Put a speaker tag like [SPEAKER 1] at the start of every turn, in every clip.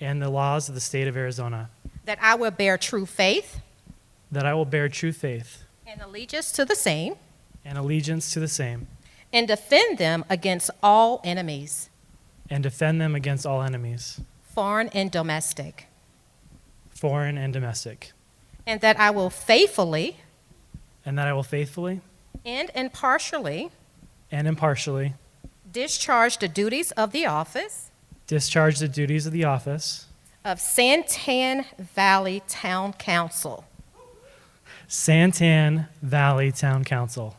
[SPEAKER 1] and the laws of the state of Arizona,
[SPEAKER 2] that I will bear true faith
[SPEAKER 1] that I will bear true faith
[SPEAKER 2] and allegiance to the same
[SPEAKER 1] and allegiance to the same,
[SPEAKER 2] and defend them against all enemies,
[SPEAKER 1] and defend them against all enemies,
[SPEAKER 2] foreign and domestic,
[SPEAKER 1] foreign and domestic,
[SPEAKER 2] and that I will faithfully
[SPEAKER 1] and that I will faithfully
[SPEAKER 2] and impartially
[SPEAKER 1] and impartially
[SPEAKER 2] discharge the duties of the office
[SPEAKER 1] discharge the duties of the office,
[SPEAKER 2] of Santan Valley Town Council
[SPEAKER 1] Santan Valley Town Council,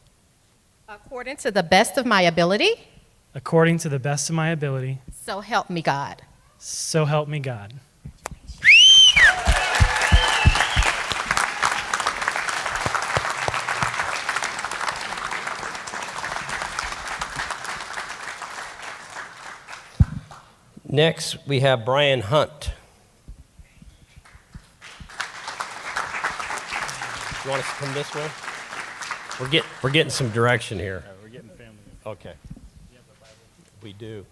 [SPEAKER 2] according to the best of my ability.
[SPEAKER 1] according to the best of my ability,
[SPEAKER 2] So help me God.
[SPEAKER 1] so help me God.
[SPEAKER 3] Next, we have Brian Hunt. You want us to come this way? We're getting, we're getting some direction here. We're getting family. Okay. We do.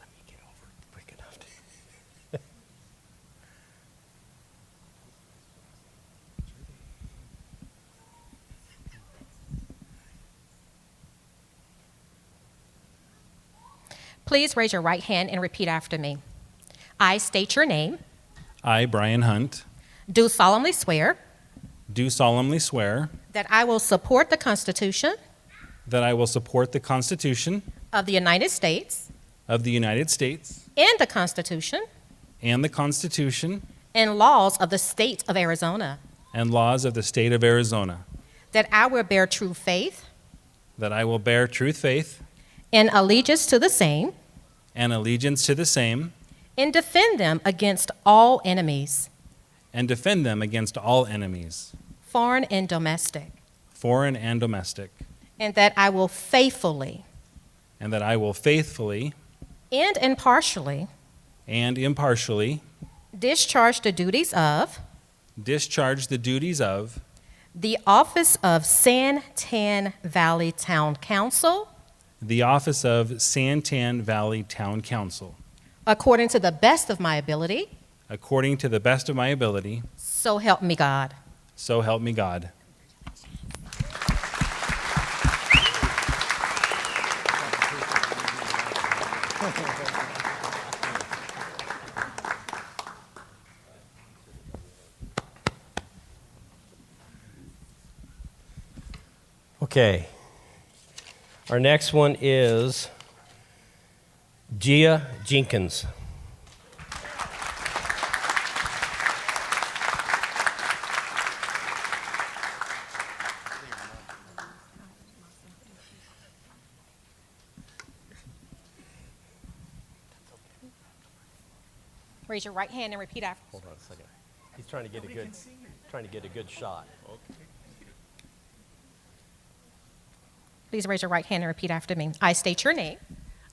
[SPEAKER 3] Let me get over it quick enough.
[SPEAKER 2] Please raise your right hand and repeat after me. I state your name,
[SPEAKER 4] I, Brian Hunt,
[SPEAKER 2] do solemnly swear
[SPEAKER 4] do solemnly swear
[SPEAKER 2] that I will support the Constitution
[SPEAKER 4] that I will support the Constitution
[SPEAKER 2] of the United States
[SPEAKER 4] of the United States
[SPEAKER 2] and the Constitution
[SPEAKER 4] and the Constitution
[SPEAKER 2] and laws of the state of Arizona,
[SPEAKER 4] and laws of the state of Arizona,
[SPEAKER 2] that I will bear true faith
[SPEAKER 4] that I will bear true faith
[SPEAKER 2] and allegiance to the same
[SPEAKER 4] and allegiance to the same,
[SPEAKER 2] and defend them against all enemies,
[SPEAKER 4] and defend them against all enemies,
[SPEAKER 2] foreign and domestic,
[SPEAKER 4] foreign and domestic,
[SPEAKER 2] and that I will faithfully
[SPEAKER 4] and that I will faithfully
[SPEAKER 2] and impartially
[SPEAKER 4] and impartially
[SPEAKER 2] discharge the duties of
[SPEAKER 4] discharge the duties of
[SPEAKER 2] the office of San Tan Valley Town Council
[SPEAKER 4] the office of Santan Valley Town Council
[SPEAKER 2] according to the best of my ability.
[SPEAKER 4] according to the best of my ability,
[SPEAKER 2] So help me God.
[SPEAKER 4] so help me God.
[SPEAKER 3] Okay. Our next one is Gia Jenkins.
[SPEAKER 2] Raise your right hand and repeat after.
[SPEAKER 3] Hold on a second. He's trying to get a good, trying to get a good shot.
[SPEAKER 2] Please raise your right hand and repeat after me. I state your name.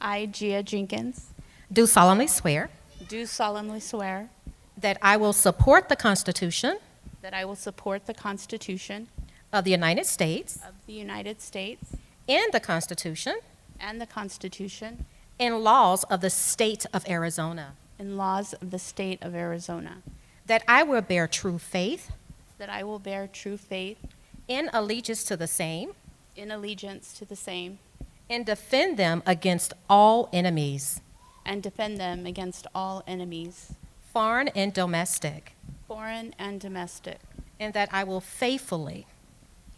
[SPEAKER 5] I, Gia Jenkins,
[SPEAKER 2] Do solemnly swear
[SPEAKER 5] do solemnly swear
[SPEAKER 2] that I will support the Constitution
[SPEAKER 5] that I will support the Constitution
[SPEAKER 2] of the United States
[SPEAKER 5] of the United States
[SPEAKER 2] and the Constitution
[SPEAKER 5] and the Constitution
[SPEAKER 2] and laws of the state of Arizona,
[SPEAKER 5] and laws of the State of Arizona,
[SPEAKER 2] that I will bear true faith
[SPEAKER 5] that I will bear true faith
[SPEAKER 2] and allegiance to the same
[SPEAKER 5] in allegiance to the same
[SPEAKER 2] and defend them against all enemies,
[SPEAKER 5] and defend them against all enemies,
[SPEAKER 2] foreign and domestic,
[SPEAKER 5] foreign and domestic,
[SPEAKER 2] and that I will faithfully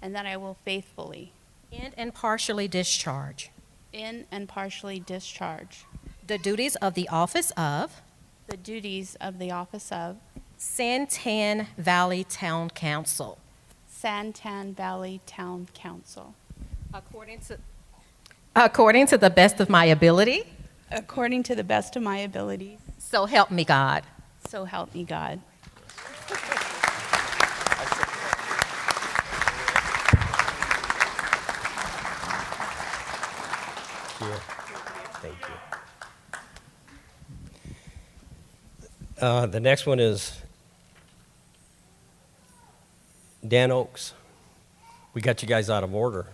[SPEAKER 5] and that I will faithfully,
[SPEAKER 2] and impartially discharge
[SPEAKER 5] in and partially discharge
[SPEAKER 2] the duties of the office of
[SPEAKER 5] the duties of the office of
[SPEAKER 2] Santan Valley Town Council
[SPEAKER 5] Santan Valley Town Council,
[SPEAKER 2] according to according to the best of my ability.
[SPEAKER 5] according to the best of my abilities,
[SPEAKER 2] So help me God.
[SPEAKER 5] so help me God.
[SPEAKER 3] Yeah. Thank you. Uh, the next one is Dan Oaks. We got you guys out of order.